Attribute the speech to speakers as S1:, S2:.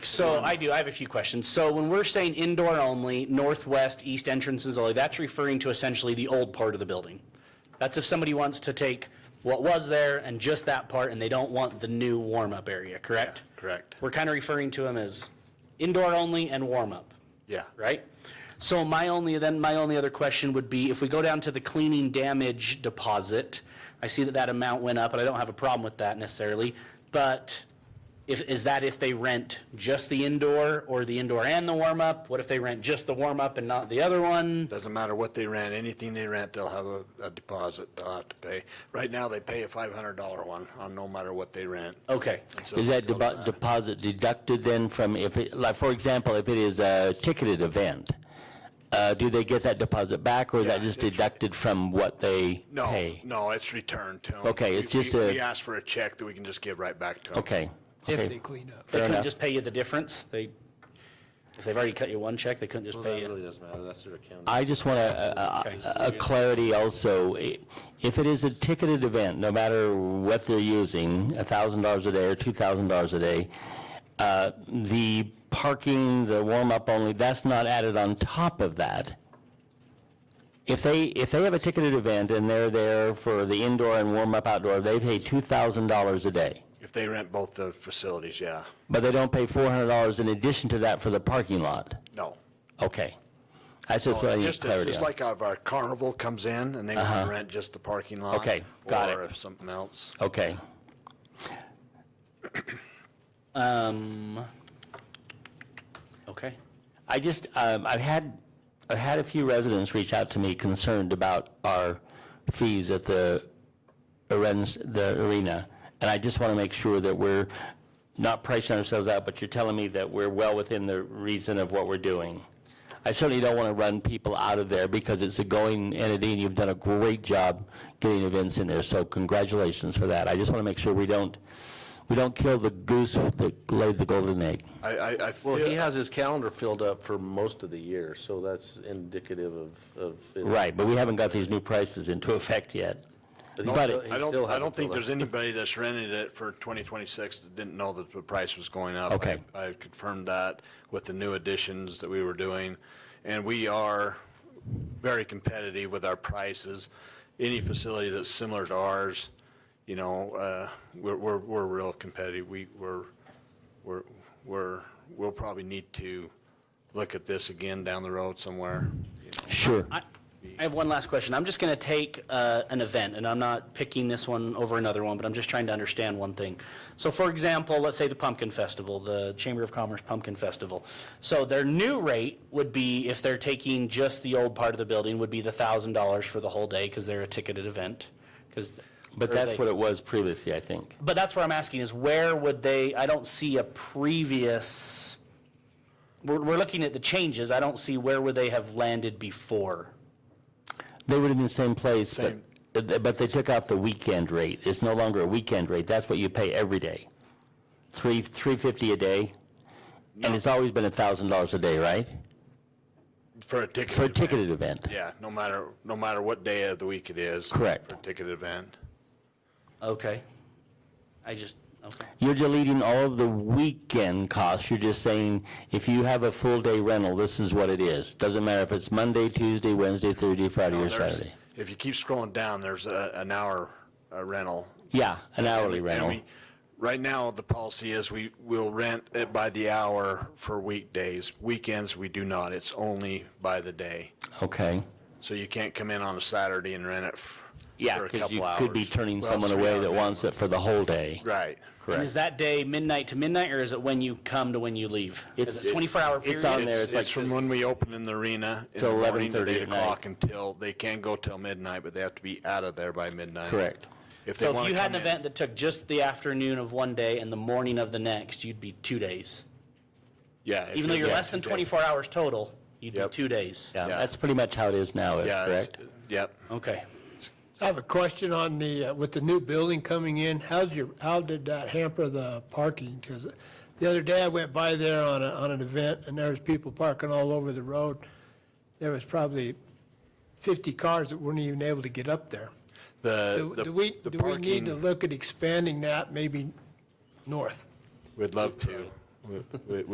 S1: So I do, I have a few questions. So when we're saying indoor only, northwest, east entrances only, that's referring to essentially the old part of the building. That's if somebody wants to take what was there and just that part, and they don't want the new warm-up area, correct?
S2: Yeah, correct.
S1: We're kind of referring to them as indoor only and warm-up,
S2: Yeah.
S1: right? So my only, then my only other question would be, if we go down to the cleaning damage deposit, I see that that amount went up, and I don't have a problem with that necessarily, but if, is that if they rent just the indoor or the indoor and the warm-up? What if they rent just the warm-up and not the other one?
S2: Doesn't matter what they rent, anything they rent, they'll have a, a deposit they'll have to pay. Right now, they pay a five hundred dollar one on no matter what they rent.
S1: Okay,
S2: So
S3: Is that
S2: they'll do
S3: debo- deposit deducted then from, if, it like, for example, if it is a ticketed event, uh, do they get that deposit back, or is that
S2: Yeah,
S3: just
S2: it's-
S3: deducted from what they
S2: No,
S3: pay?
S2: no, it's returned to them.
S3: Okay, it's just a-
S2: We ask for a check that we can just give right back to them.
S3: Okay,
S4: if they
S3: okay,
S4: clean up.
S1: they couldn't
S3: enough.
S1: just pay you the difference? They, if they've already cut you one check, they couldn't just pay
S5: That
S1: you?
S5: really doesn't matter, that's their account.
S3: I just want a, uh, a- a clarity also, I- if it is a ticketed event, no matter what they're using, a thousand dollars a day or two thousand dollars a day, uh, the parking, the warm-up only, that's not added on top of that. If they, if they have a ticketed event and they're there for the indoor and warm-up outdoor, they pay two thousand dollars a day.
S2: If they rent both the facilities, yeah,
S3: But they don't pay four hundred dollars in addition to that for the parking lot.
S2: no.
S3: Okay. That's just what I need
S2: Just,
S3: clarity on. Uh-huh.
S2: just like if our carnival comes in and they want to rent just the parking lot.
S3: Okay, got it.
S2: Or if something else.
S3: Okay.
S1: Um, okay.
S3: I just, um, I've had, I've had a few residents reach out to me concerned about our fees at the arens- the arena. And I just want to make sure that we're not pricing ourselves out, but you're telling me that we're well within the reason of what we're doing. I certainly don't want to run people out of there because it's a going entity and you've done a great job getting events in there. So congratulations for that. I just want to make sure we don't, we don't kill the goose that laid the golden egg.
S2: I, I, I
S5: Well, he
S2: feel,
S5: has his calendar filled up for most of the year, so that's indicative of, of. it.
S3: Right, but we haven't got these new prices into effect yet.
S5: But he
S3: But
S5: still-
S3: it-
S5: he
S2: I don't,
S5: still
S2: I don't
S5: hasn't
S2: think
S5: filled
S2: there's anybody that's rented it for twenty twenty-six that didn't know that the price was going up.
S3: Okay.
S2: I I confirmed that with the new additions that we were doing, and we are very competitive with our prices. Any facility that's similar to ours, you know, uh, we're, we're, we're real competitive. We, we're, we're, we're, we'll probably need to look at this again down the road somewhere.
S3: Sure.
S1: I I have one last question. I'm just going to take uh, an event, and I'm not picking this one over another one, but I'm just trying to understand one thing. So for example, let's say the Pumpkin Festival, the Chamber of Commerce Pumpkin Festival. So their new rate would be, if they're taking just the old part of the building, would be the $1,000 for the whole day because they're a ticketed event, 'cause-
S3: But
S1: or
S3: that's
S1: they-
S3: what it was previously, I think.
S1: But that's where I'm asking is where would they, I don't see a previous, we're, we're looking at the changes. I don't see where would they have landed before.
S3: They would have been the same place, but,
S2: Same.
S3: but they took off the weekend rate. It's no longer a weekend rate. That's what you pay every day. Three, three fifty a day. And it's always been a thousand dollars a day, right?
S2: For a ticket.
S3: For a
S2: event.
S3: ticketed event.
S2: Yeah, no matter, no matter what day of the week it is.
S3: Correct.
S2: For a ticket event.
S1: Okay. I just, okay.
S3: You're deleting all of the weekend costs. You're just saying, if you have a full day rental, this is what it is. Doesn't matter if it's Monday, Tuesday, Wednesday, Thursday, Friday, or
S2: There's-
S3: Saturday.
S2: If you keep scrolling down, there's a, an hour uh, rental.
S3: Yeah, an hourly
S2: And
S3: rental.
S2: we- Right now, the policy is we will rent it by the hour for weekdays. Weekends, we do not. It's only by the day.
S3: Okay.
S2: So you can't come in on a Saturday and rent it f-
S3: Yeah,
S2: for a
S3: because you
S2: couple hours.
S3: could be turning
S2: Well,
S3: someone
S2: three
S3: away
S2: hour
S3: that wants it
S2: minimum.
S3: for the whole day.
S2: Right.
S1: And is that day midnight to midnight, or is it when you come to when you leave? Is it
S3: It's-
S1: 24-hour
S3: it's on
S1: period?
S3: there,
S2: It's
S3: it's like,
S2: it's from when we open in the arena. in
S3: Till
S2: the morning
S3: 11:30
S2: eight
S3: at night.
S2: o'clock Until, they can go till midnight, but they have to be out of there by midnight.
S3: correct.
S2: If they
S1: So
S2: want
S1: if
S2: to
S1: you had
S2: come
S1: an event
S2: in.
S1: that took just the afternoon of one day and the morning of the next, you'd be two days.
S2: Yeah. if
S1: Even though
S2: you-
S1: you're
S2: yeah,
S1: less than
S2: yeah.
S1: 24 hours total, you'd be
S2: Yep.
S1: two days.
S3: Yeah,
S2: Yeah.
S3: that's pretty much how it is
S2: Yeah.
S3: now,
S2: it's-
S3: correct?
S2: Yep.
S1: Okay.
S4: I have a question on the, uh, with the new building coming in, how's your, how did that hamper the parking? Because the other day I went by there on a, on an event and there was people parking all over the road. There was probably 50 cars that weren't even able to get up there.
S2: The,
S4: Do
S2: Uh, the
S4: do we,
S2: the
S4: do we need to
S2: parking,
S4: look at expanding that maybe north?
S2: we'd love to. We- we-